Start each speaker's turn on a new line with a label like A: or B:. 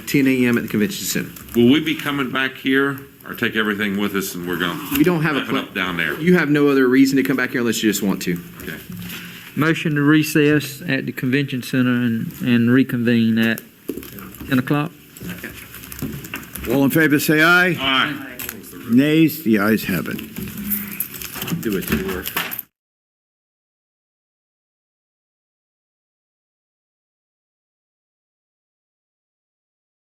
A: 10 a.m. at the convention center.
B: Will we be coming back here or take everything with us and we're going?
A: We don't have a
B: Wrapping
A: plan.
B: up down there.
A: You have no other reason to come back here unless you just want to.
B: Okay.
C: Motion to recess at the convention center and, and reconvene at 10 o'clock.
D: All in favor, say aye.
B: All right.
D: Nays, the ayes have it.
A: Do it.